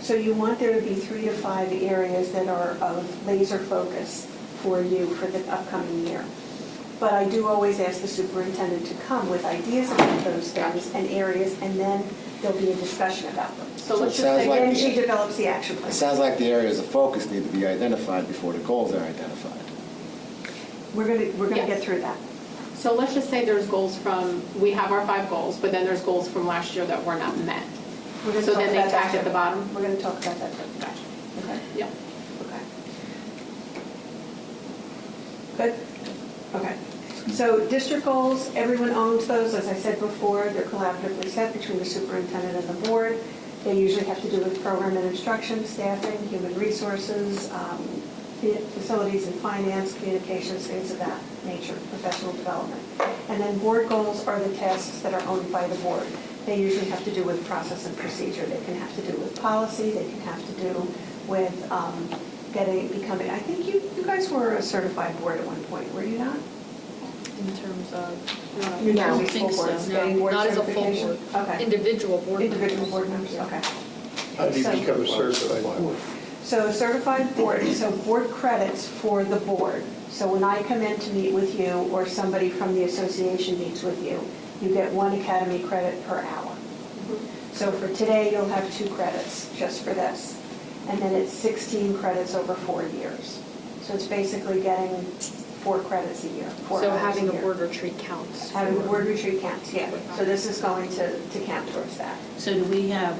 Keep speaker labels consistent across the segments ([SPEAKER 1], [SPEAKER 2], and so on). [SPEAKER 1] So you want there to be three to five areas that are of laser focus for you for the upcoming year. But I do always ask the superintendent to come with ideas about those things and areas, and then there'll be a discussion about them.
[SPEAKER 2] So let's
[SPEAKER 3] So it
[SPEAKER 2] just
[SPEAKER 3] sounds
[SPEAKER 2] say,
[SPEAKER 3] like-
[SPEAKER 1] And then she develops the action plan.
[SPEAKER 3] It sounds like the areas of focus need to be identified before the goals are identified.
[SPEAKER 1] We're gonna, we're gonna
[SPEAKER 2] Yeah.
[SPEAKER 1] get through that.
[SPEAKER 2] so let's just say there's goals from, we have our five goals, but then there's goals from last year that were not met.
[SPEAKER 1] We're gonna
[SPEAKER 2] So
[SPEAKER 1] talk
[SPEAKER 2] then they
[SPEAKER 1] about that
[SPEAKER 2] tack at the
[SPEAKER 1] too.
[SPEAKER 2] bottom?
[SPEAKER 1] We're gonna talk about that. too. Okay,
[SPEAKER 2] Yep.
[SPEAKER 1] okay. Good, okay. So district goals, everyone owns those, as I said before, they're collaboratively set between the superintendent and the board. They usually have to do with program and instruction, staffing, human resources, um, fa- facilities and finance, communications, things of that nature, professional development. And then board goals are the tasks that are owned by the board. They usually have to do with process and procedure. They can have to do with policy, they can have to do with um, getting, becoming, I think you, you guys were a certified board at one point, were you not?
[SPEAKER 4] In terms of. uh,
[SPEAKER 1] New
[SPEAKER 4] I don't
[SPEAKER 1] Jersey school
[SPEAKER 4] think so,
[SPEAKER 1] boards,
[SPEAKER 4] no.
[SPEAKER 1] getting board
[SPEAKER 4] Not as a full
[SPEAKER 1] certification?
[SPEAKER 4] board.
[SPEAKER 1] Okay.
[SPEAKER 4] Individual board members.
[SPEAKER 1] Individual board members, okay.
[SPEAKER 5] How do you
[SPEAKER 1] So-
[SPEAKER 5] become a certified board?
[SPEAKER 1] So certified board, so board credits for the board. So when I come in to meet with you, or somebody from the association meets with you, you get one academy credit per hour. So for today, you'll have two credits just for this. And then it's 16 credits over four years. So it's basically getting four credits a year, four
[SPEAKER 4] So
[SPEAKER 1] hours a
[SPEAKER 4] having a
[SPEAKER 1] year.
[SPEAKER 4] board retreat counts.
[SPEAKER 1] Having a
[SPEAKER 4] for-
[SPEAKER 1] board retreat counts, yeah. So this is going to, to count towards that.
[SPEAKER 6] So do we have,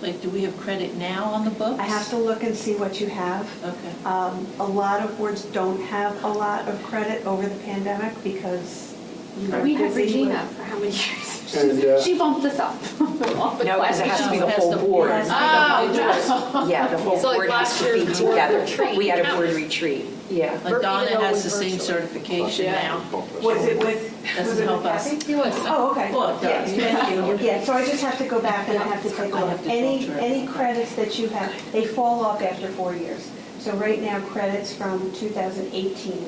[SPEAKER 6] like, do we have credit now on the books?
[SPEAKER 1] I have to look and see what you have.
[SPEAKER 6] Okay.
[SPEAKER 1] Um, A lot of boards don't have a lot of credit over the pandemic because you are
[SPEAKER 2] We had
[SPEAKER 1] busy with-
[SPEAKER 2] Regina for how many years?
[SPEAKER 5] And, uh,
[SPEAKER 2] She's- She bumped us up off the
[SPEAKER 7] No, 'cause it
[SPEAKER 2] class.
[SPEAKER 7] has to be the
[SPEAKER 6] Oh, Has
[SPEAKER 7] whole
[SPEAKER 6] the-
[SPEAKER 7] board.
[SPEAKER 1] has to
[SPEAKER 2] Oh, no.
[SPEAKER 7] Yeah, the whole
[SPEAKER 4] So, like,
[SPEAKER 7] board has
[SPEAKER 4] last
[SPEAKER 7] to be
[SPEAKER 4] year's board
[SPEAKER 7] together.
[SPEAKER 4] retreat
[SPEAKER 7] We had a board
[SPEAKER 4] counts.
[SPEAKER 7] retreat, yeah.
[SPEAKER 6] Like
[SPEAKER 4] Even
[SPEAKER 6] Donna
[SPEAKER 4] though
[SPEAKER 6] has the
[SPEAKER 4] it's
[SPEAKER 6] same
[SPEAKER 4] virtual.
[SPEAKER 6] certification
[SPEAKER 2] Yeah.
[SPEAKER 6] now.
[SPEAKER 1] Was it with,
[SPEAKER 6] Doesn't
[SPEAKER 1] was it with
[SPEAKER 6] help us.
[SPEAKER 1] Kathy?
[SPEAKER 4] He was.
[SPEAKER 1] Oh, okay.
[SPEAKER 6] Well, it does.
[SPEAKER 1] Yeah, thank you. Yeah, so I just have to go back and I have to take a
[SPEAKER 6] I
[SPEAKER 1] look.
[SPEAKER 6] have to
[SPEAKER 1] Any,
[SPEAKER 6] filter it.
[SPEAKER 1] any credits that you have, they fall off after four years. So right now, credits from 2018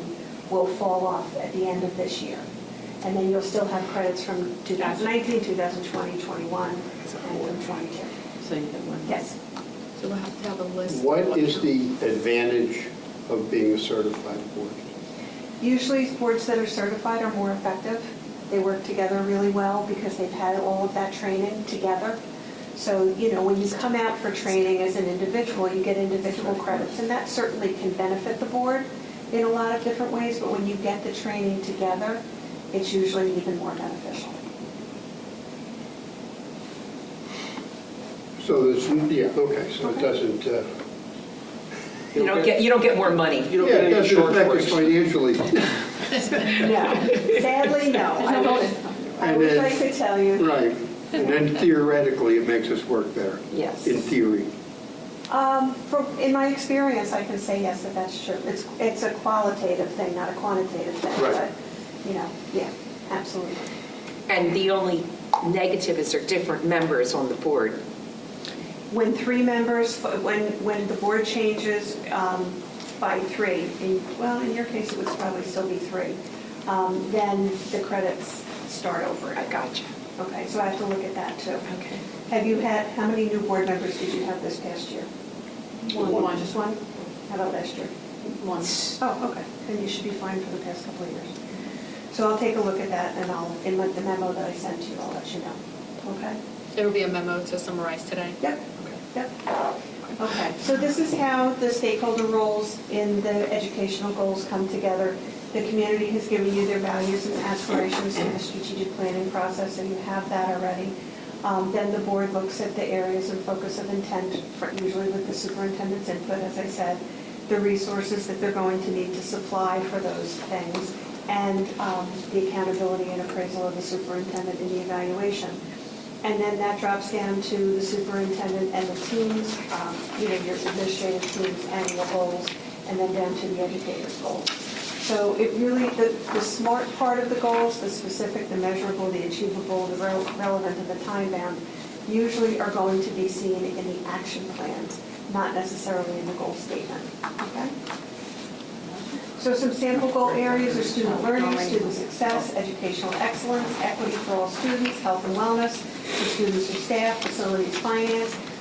[SPEAKER 1] will fall off at the end of this year. And then you'll still have credits from 2019, 2020, 21, and from 22.
[SPEAKER 6] So you have one.
[SPEAKER 1] Yes.
[SPEAKER 4] So we'll have to have a list.
[SPEAKER 5] What is the advantage of being a certified board?
[SPEAKER 1] Usually, boards that are certified are more effective. They work together really well because they've had all of that training together. So, you know, when you come out for training as an individual, you get individual credits, and that certainly can benefit the board in a lot of different ways, but when you get the training together, it's usually even more beneficial.
[SPEAKER 5] So there's, yeah, okay, so it doesn't, uh,
[SPEAKER 7] You don't get, you don't get more money.
[SPEAKER 5] yeah, it doesn't affect us financially.
[SPEAKER 1] No, sadly, no. I wish- I
[SPEAKER 5] And
[SPEAKER 1] wish I
[SPEAKER 5] then-
[SPEAKER 1] could tell you.
[SPEAKER 5] Right, and then theoretically, it makes us work better.
[SPEAKER 7] Yes.
[SPEAKER 5] In theory.
[SPEAKER 1] Um, From, in my experience, I can say yes, that that's true. It's, it's a qualitative thing, not a quantitative thing.
[SPEAKER 5] Right.
[SPEAKER 1] But, you know, yeah, absolutely.
[SPEAKER 7] And the only negative is there are different members on the board.
[SPEAKER 1] When three members, when, when the board changes um, by three, in- well, in your case, it would probably still be three, um, then the credits start over.
[SPEAKER 7] I gotcha.
[SPEAKER 1] Okay, so I have to look at that too.
[SPEAKER 7] Okay.
[SPEAKER 1] Have you had, how many new board members did you have this past year?
[SPEAKER 2] One.
[SPEAKER 1] Just one? How about last year?
[SPEAKER 2] One.
[SPEAKER 1] Oh, okay, then you should be fine for the past couple of years. So I'll take a look at that and I'll, in the the memo that I sent you, I'll let you know. Okay?
[SPEAKER 4] It'll be a memo to summarize today.
[SPEAKER 1] Yep, yep. Okay, so this is how the stakeholder roles in the educational goals come together. The community has given you their values and aspirations in the strategic planning process, and you have that already. Um, Then the board looks at the areas of focus of intent, for- usually with the superintendent's input, as I said, the resources that they're going to need to supply for those things, and um, the accountability and appraisal of the superintendent in the evaluation. And then that drops down to the superintendent and the teams, um, you know, your administrative teams, annual goals, and then down to the educators' goals. So it really, the, the SMART part of the goals, the specific, the measurable, the achievable, the rel- relevant, and the time-bound, usually are going to be seen in the action plans, not necessarily in the goal statement, okay? So some sample goal areas are student learning, student success, educational excellence, equity for all students, health and wellness, for students and staff, facilities, finance,